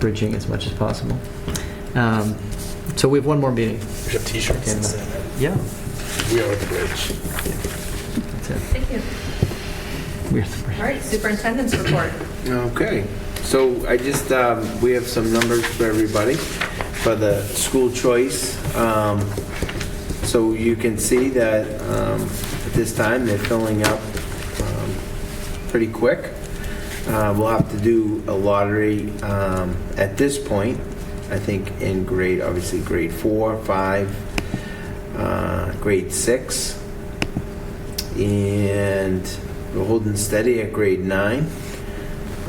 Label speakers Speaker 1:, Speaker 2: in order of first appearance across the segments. Speaker 1: bridging as much as possible. Um, So we have one more meeting.
Speaker 2: We have t-shirts
Speaker 1: And,
Speaker 2: and
Speaker 1: uh,
Speaker 2: stuff.
Speaker 1: Yeah,
Speaker 2: We are the bridge.
Speaker 1: that's it.
Speaker 3: Thank you.
Speaker 1: We're the bridge.
Speaker 3: All right, superintendent's report.
Speaker 4: Okay, so I just, um, we have some numbers for everybody for the school choice. Um, So you can see that um, at this time, they're filling up um, pretty quick. Uh, We'll have to do a lottery um, at this point, I think in grade, obviously grade four, five, uh, grade six, and we're holding steady at grade nine.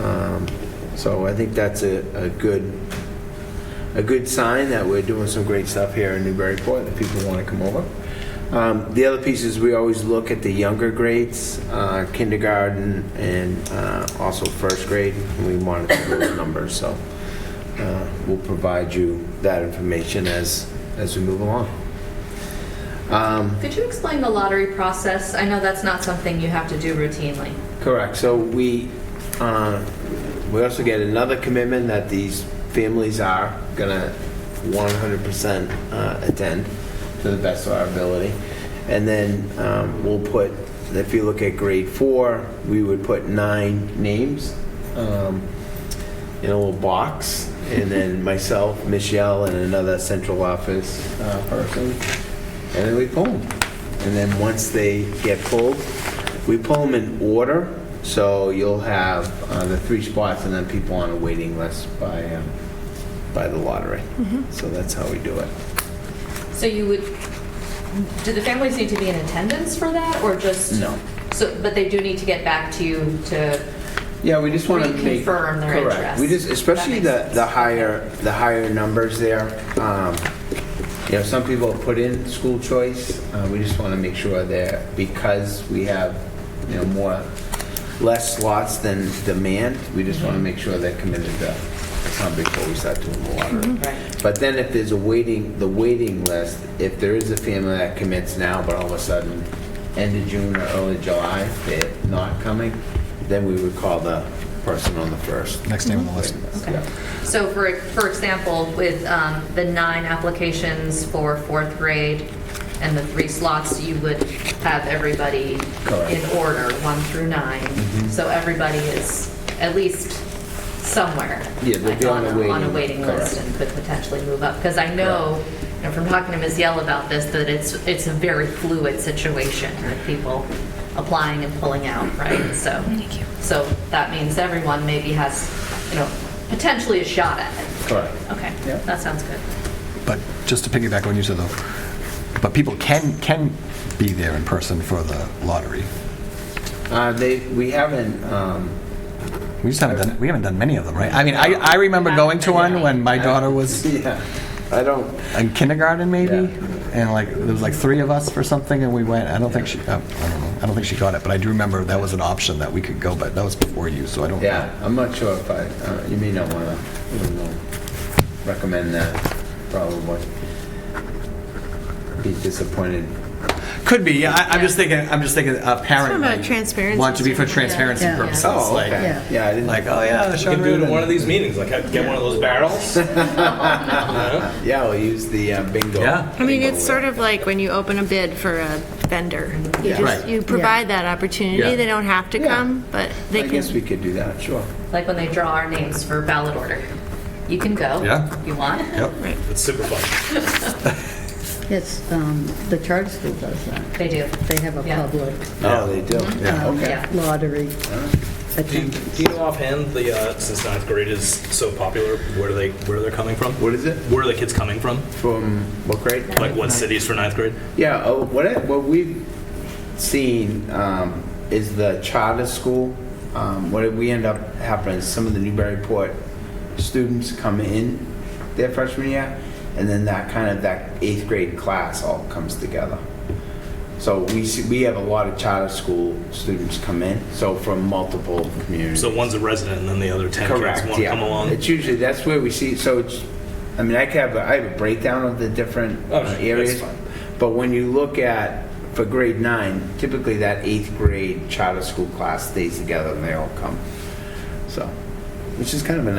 Speaker 4: Um, So I think that's a, a good, a good sign that we're doing some great stuff here in Newburyport, that people want to come over. Um, The other piece is we always look at the younger grades, uh, kindergarten and uh, also first grade, and we monitor those numbers, so uh, we'll provide you that information as, as we move along. Um,
Speaker 3: Could you explain the lottery process? I know that's not something you have to do routinely.
Speaker 4: Correct. So we, uh, we also get another commitment that these families are gonna 100% uh, attend to the best of our ability. And then um, we'll put, if you look at grade four, we would put nine names um, in a little box. And then myself, Michelle, and another central office uh, person and then we pull them. And then once they get pulled, we pull them in order, so you'll have uh, the three spots and then people on a waiting list by, um, by the lottery. So that's how we do it.
Speaker 3: So you would, do the families need to be in attendance for that, or just?
Speaker 4: No.
Speaker 3: So, but they do need to get back to you to,
Speaker 4: Yeah, we just want to make.
Speaker 3: Reconfirm their
Speaker 4: Correct.
Speaker 3: interest.
Speaker 4: We just, especially
Speaker 3: That
Speaker 4: the,
Speaker 3: makes
Speaker 4: the
Speaker 3: sense.
Speaker 4: higher, the higher numbers there. Um, You know, some people put in school choice. Uh, We just want to make sure that because we have, you know, more, less slots than demand, we just
Speaker 3: Mm-hmm.
Speaker 4: want to make sure they're committed to come before we start doing the lottery.
Speaker 3: right,
Speaker 4: But then if there's a waiting, the waiting list, if there is a family that commits now, but all of a sudden, end of June or early July, they're not coming, then we would call the person on the first.
Speaker 5: Next name on the list.
Speaker 3: okay.
Speaker 4: Yeah.
Speaker 3: So for, for example, with um, the nine applications for fourth grade and the three slots, you would have everybody
Speaker 4: Correct. Mm-hmm.
Speaker 3: in order, one through nine. So everybody is at least somewhere.
Speaker 4: Yeah, they'd
Speaker 3: like,
Speaker 4: be on a
Speaker 3: On a
Speaker 4: waiting-
Speaker 3: waiting list
Speaker 4: correct.
Speaker 3: and could potentially move up. Because I know, you know, from talking to Ms. Yell about this, that it's, it's a very fluid situation with people applying and pulling out, right? So, so that means everyone maybe has, you know, potentially a shot at it.
Speaker 4: Correct.
Speaker 3: Okay,
Speaker 4: Yeah.
Speaker 3: that sounds good.
Speaker 5: But just to piggyback on you said though, but people can, can be there in person for the lottery.
Speaker 4: Uh, They, we haven't, um,
Speaker 5: We just haven't done, we haven't done many of them, right? I mean, I, I remember going to one when my daughter was
Speaker 4: yeah, I don't,
Speaker 5: in kindergarten maybe,
Speaker 4: Yeah.
Speaker 5: and like, there was like three of us for something and we went, I don't think she, oh, I don't know, I don't think she got it, but I do remember that was an option that we could go, but that was before you, so I don't.
Speaker 4: yeah, I'm not sure if I, uh, you may not want to recommend that, probably. Be disappointed.
Speaker 5: Could be, yeah, I- I'm just thinking, I'm just thinking a parent
Speaker 6: Talking about
Speaker 5: might
Speaker 6: transparency.
Speaker 5: want to be for transparency
Speaker 6: Yeah.
Speaker 5: purposes,
Speaker 4: Oh,
Speaker 5: like,
Speaker 4: okay, yeah, I didn't.
Speaker 5: like, oh yeah,
Speaker 2: You
Speaker 5: Sean
Speaker 2: can do it in one
Speaker 5: Rudin.
Speaker 2: of these meetings, like I'd get one of those barrels. You know?
Speaker 4: Yeah, we'll use the uh, bingo.
Speaker 5: Yeah.
Speaker 6: I mean,
Speaker 4: bingo
Speaker 6: it's sort of like when you open a bid for a vendor. You
Speaker 4: Yeah.
Speaker 6: just,
Speaker 5: Right.
Speaker 6: you provide that opportunity. They don't have to
Speaker 4: Yeah.
Speaker 6: come, but they
Speaker 4: I guess we
Speaker 6: can.
Speaker 4: could do that, sure.
Speaker 3: Like when they draw our names for ballot order. You can go.
Speaker 5: Yeah.
Speaker 3: You want?
Speaker 5: Yep.
Speaker 2: It's super fun.
Speaker 7: It's, um, the charter school does that.
Speaker 3: They do.
Speaker 7: They have a
Speaker 3: Yeah.
Speaker 7: public
Speaker 4: Oh, they do.
Speaker 5: Yeah.
Speaker 7: um,
Speaker 3: Yeah.
Speaker 7: lottery
Speaker 2: Do you,
Speaker 7: attendance.
Speaker 2: do you know offhand the uh, since ninth grade is so popular, where do they where they're coming from?
Speaker 4: What is it?
Speaker 2: Where are the kids coming from?
Speaker 4: From what grade?
Speaker 2: Like what cities for ninth grade?
Speaker 4: Yeah, oh, what, I- what we've seen um, is the charter school. Um, What we end up happening is some of the Newburyport students come in their freshman year, and then that kind of, that eighth grade class all comes together. So we, see- we have a lot of charter school students come in, so from multiple communities.
Speaker 2: So one's a resident, and then the other ten kids
Speaker 4: Correct,
Speaker 2: want to
Speaker 4: yeah.
Speaker 2: come along.
Speaker 4: It's usually, that's where we see, so it's, I mean, I could have, a- I have a breakdown of the different
Speaker 2: Oh,
Speaker 4: uh,
Speaker 2: sure, that's
Speaker 4: areas.
Speaker 2: fine.
Speaker 4: But when you look at, for grade nine, typically that eighth grade charter school class stays together and they all come. So, which is kind of a